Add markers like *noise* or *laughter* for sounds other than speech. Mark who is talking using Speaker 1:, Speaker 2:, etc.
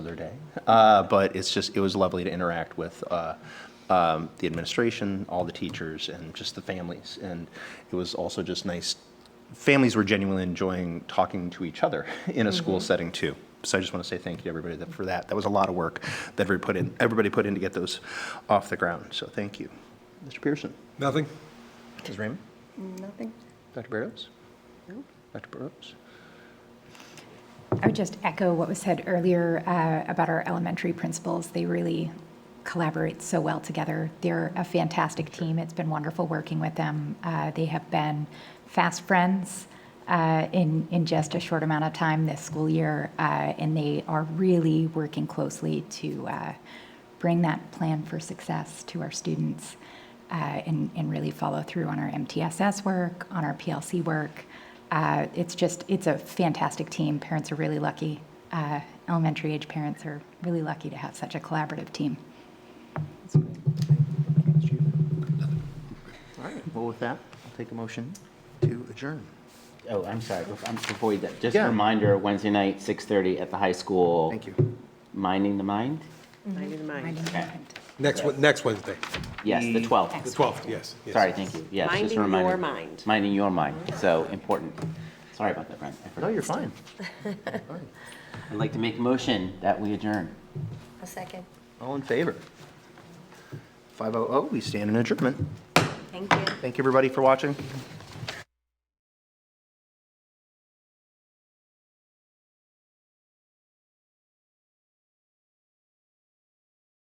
Speaker 1: another day. Uh, But it's just, it was lovely to interact with uh, um, the administration, all the teachers, and just the families. And it was also just nice, families were genuinely enjoying talking to each other *laughs* in a school setting, too. So I just want to say thank you to everybody that- for that. That was a lot of work that everybody put in, everybody put in to get those off the ground, so thank you. Mr. Pearson?
Speaker 2: Nothing?
Speaker 1: Mrs. Raymond?
Speaker 3: Nothing.
Speaker 1: Dr. Berdos? Dr. Burrows?
Speaker 4: I would just echo what was said earlier uh, about our elementary principals. They really collaborate so well together. They're a fantastic team. It's been wonderful working with them. Uh, They have been fast friends uh, in, in just a short amount of time this school year, uh, and they are really working closely to uh, bring that plan for success to our students uh, and, and really follow through on our MTSS work, on our PLC work. Uh, It's just, it's a fantastic team. Parents are really lucky. Uh, Elementary age parents are really lucky to have such a collaborative team.
Speaker 1: All right, well, with that, I'll take a motion to adjourn.
Speaker 5: Oh, I'm sorry, bef- I'm- before we, do that, just a
Speaker 1: Yeah.
Speaker 5: reminder, Wednesday night, 6:30 at the high school.
Speaker 1: Thank you.
Speaker 5: Minding the Mind?
Speaker 3: Mind in mind.
Speaker 4: Reminding
Speaker 5: Okay.
Speaker 4: parent.
Speaker 2: Next, Wed- next Wednesday,
Speaker 5: Yes, the
Speaker 1: The-
Speaker 5: 12th.
Speaker 2: the 12th, yes. yes.
Speaker 5: Sorry, thank you, yes, just
Speaker 3: Minding
Speaker 5: a
Speaker 3: your
Speaker 5: reminder.
Speaker 3: mind.
Speaker 5: Minding your mind, so important. Sorry about that, Brent. I
Speaker 1: No,
Speaker 5: forgot.
Speaker 1: you're fine.
Speaker 5: I'd like to make a motion that we adjourn.
Speaker 6: A second.
Speaker 1: All in favor? 500, we stand in adjournment.
Speaker 6: Thank you.
Speaker 1: Thank you, everybody, for watching.